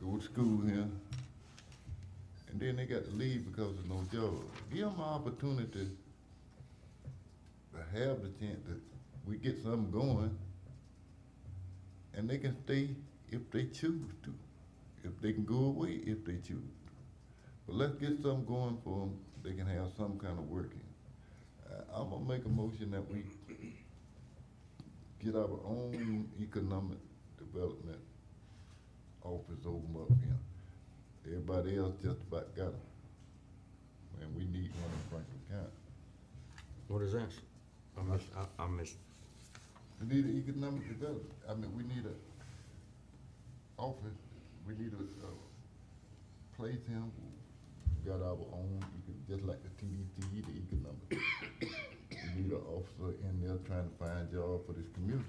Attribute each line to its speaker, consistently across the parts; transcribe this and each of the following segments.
Speaker 1: go to school here, and then they got to leave because of no job. Give them an opportunity to have the chance that we get something going, and they can stay if they choose to, if they can go away if they choose. to. But let's get something going for them, they can have some kind of working. I, I'm gonna make a motion that we get our own economic development office open up again. Everybody else just about got them. And we need one in Franklin County.
Speaker 2: What is this? I miss, I, I miss,
Speaker 1: We need an economic development, I mean, we need a office, we need a, a place here, we got our own, econ- just like the TDT, the economic. We need an officer in there trying to find job for this community.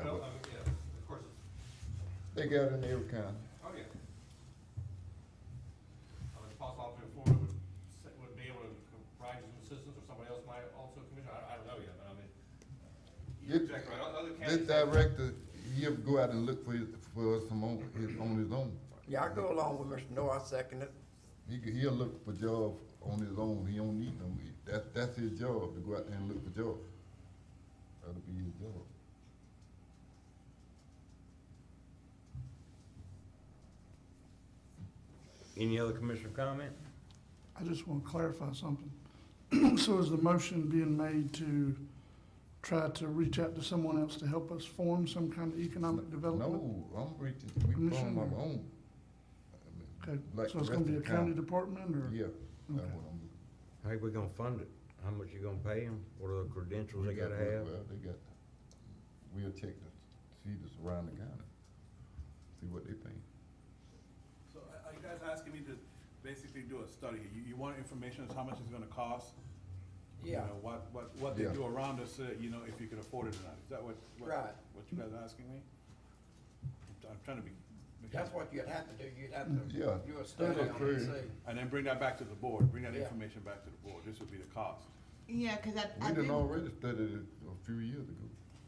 Speaker 1: I
Speaker 3: Well,
Speaker 1: would-
Speaker 3: I mean, uh, yeah, of course, it's-
Speaker 1: They got in every county.
Speaker 3: oh, yeah. I mean, it's possible Alderman Florida would, se- would be able to co- provide you some assistance, or somebody else might also commission, I, I don't know yet, but I mean, uh, you're
Speaker 1: This-
Speaker 3: exactly right, other
Speaker 1: This
Speaker 3: counties. have-
Speaker 1: director, he'll go out and look for, his- for some on, his, on his own.
Speaker 4: Yeah, I go along with Mr. Noah, I second it.
Speaker 1: He, c- he'll look for jobs on his own, he don't need them, that, that's his job, to go out there and look for jobs. That'll be his job.
Speaker 2: any other commissioner comment?
Speaker 5: I just want to clarify something. So is the motion being made to try to reach out to someone else to help us form some kind of economic development?
Speaker 1: No, I'm reaching, we form
Speaker 5: Commissioner?
Speaker 1: our own. I mean,
Speaker 5: Okay,
Speaker 1: like
Speaker 5: so it's
Speaker 1: the
Speaker 5: gonna be a
Speaker 1: rest of the
Speaker 5: county
Speaker 1: county.
Speaker 5: department or?
Speaker 1: Yeah, that's
Speaker 5: Okay.
Speaker 1: what I'm.
Speaker 2: How we gonna fund it? How much you gonna pay them? What are the credentials they
Speaker 1: we got-
Speaker 2: gotta have?
Speaker 1: Well, they got, we'll check the, see this around the county, see what they think.
Speaker 6: So are- are you guys asking me to basically do a study? You, you want information as how much it's gonna cost? You
Speaker 4: Yeah.
Speaker 6: know, What, what, what they
Speaker 1: Yeah.
Speaker 6: do around us, uh, you know, if you could afford it or not? Is that what, what,
Speaker 4: Right.
Speaker 6: what you guys are asking me? I'm t- I'm trying to be. make
Speaker 4: That's
Speaker 6: sense.
Speaker 4: what you'd have to do, you'd have to
Speaker 1: Yeah.
Speaker 4: do a study on it,
Speaker 1: Okay.
Speaker 4: and see.
Speaker 6: And then bring that back to the board, bring that
Speaker 4: Yeah.
Speaker 6: information back to the board. This would be the cost.
Speaker 7: Yeah, because I,
Speaker 1: We
Speaker 7: I
Speaker 1: done
Speaker 7: do,
Speaker 1: already studied it a few years ago.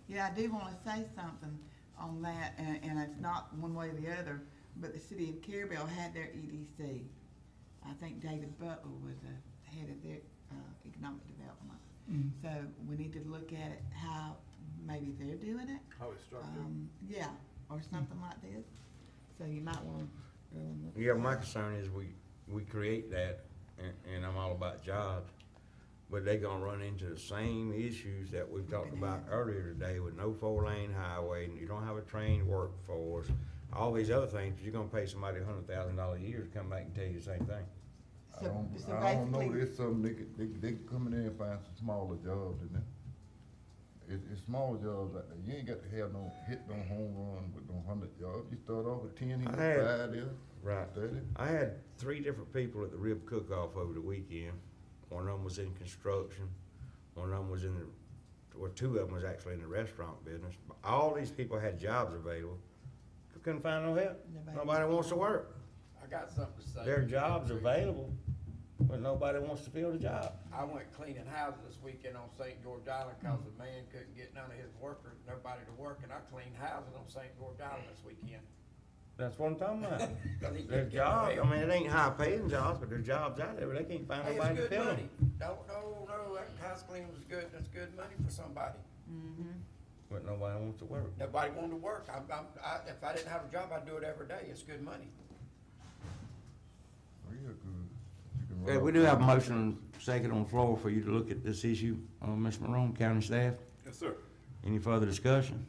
Speaker 7: yeah, I do want to say something on that, and, and it's not one way or the other, but the city of Carabel had their EDC. I think David Butler was the head of their, uh, economic development.
Speaker 5: Mhm.
Speaker 7: So we need to look at it, how maybe they're doing it,
Speaker 6: How it's structured.
Speaker 7: um, yeah, or something like this. So you might want to go and look.
Speaker 2: Yeah, my concern is we, we create that, and, and I'm all about jobs, but they gonna run into the same issues that we've talked about earlier today with no four-lane highway, and you don't have a trained workforce, all these other things, you're gonna pay somebody a hundred thousand dollars a year to come back and tell you the same thing.
Speaker 1: I
Speaker 7: So-
Speaker 1: don't,
Speaker 7: so
Speaker 1: I don't know,
Speaker 7: basically-
Speaker 1: there's some, they, could- they, they could come in there and find some smaller jobs than that. It, it's small jobs like that, you ain't got to have no, hit no home run with no hundred jobs, you start off with ten, you
Speaker 2: I
Speaker 1: get
Speaker 2: had-
Speaker 1: five there,
Speaker 2: Right.
Speaker 1: thirty.
Speaker 2: I had three different people at the rib cook-off over the weekend. One of them was in construction, one of them was in the, well, two of them was actually in the restaurant business. But All these people had jobs available, couldn't find no help.
Speaker 7: Nobody.
Speaker 2: Nobody wants to work.
Speaker 4: I got something to say.
Speaker 2: There are jobs available, but nobody wants to fill the job.
Speaker 4: I went cleaning houses this weekend on St. George Island because the man couldn't get none of his workers, nobody to work, and I cleaned houses on St. George Island this weekend.
Speaker 2: That's what I'm talking about.
Speaker 4: Because he
Speaker 2: There's
Speaker 4: couldn't get
Speaker 2: jobs, I
Speaker 4: help.
Speaker 2: mean, it ain't high-paying jobs, but there's jobs out there, but they can't find
Speaker 4: Hey, it's
Speaker 2: nobody to
Speaker 4: good
Speaker 2: fill
Speaker 4: money.
Speaker 2: them.
Speaker 4: No, no, no, that house cleaning was good, that's good money for somebody.
Speaker 2: But nobody wants to work.
Speaker 4: Nobody wanted to work, I'm, I'm, I, if I didn't have a job, I'd do it every day, it's good money.
Speaker 1: Real good. You can
Speaker 2: Okay,
Speaker 1: run
Speaker 2: we
Speaker 1: up-
Speaker 2: do have a motion and second on the floor for you to look at this issue, uh, Ms. Morone, county staff.
Speaker 6: Yes, sir.
Speaker 2: Any further discussion?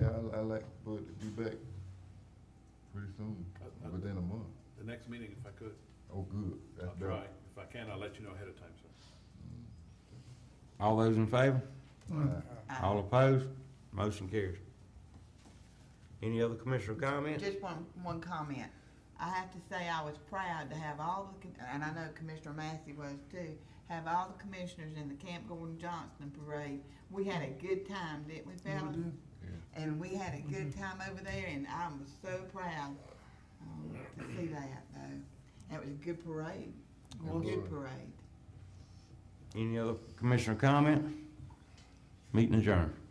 Speaker 1: Yeah, I, I like, but to be back pretty soon,
Speaker 6: I- I-
Speaker 1: within a month.
Speaker 6: The next meeting, if I could,
Speaker 1: Oh, good,
Speaker 6: I'll
Speaker 1: that's better.
Speaker 6: try. If I can, I'll let you know ahead of time, sir.
Speaker 2: All those in favor?
Speaker 5: Uh,
Speaker 2: All opposed? Motion carries. Any other commissioner comments?
Speaker 7: Just one, one comment. I have to say, I was proud to have all the, com- and I know Commissioner Massey was too, have all the commissioners in the Camp Gordon Johnston parade. We had a good time, didn't we,
Speaker 5: yeah,
Speaker 7: fellas?
Speaker 5: we do.
Speaker 7: And we had a good time over there, and I was so proud, um, to see that, though. It was a good parade, a good
Speaker 1: was.
Speaker 7: parade.
Speaker 2: Any other commissioner comment? Meeting adjourned.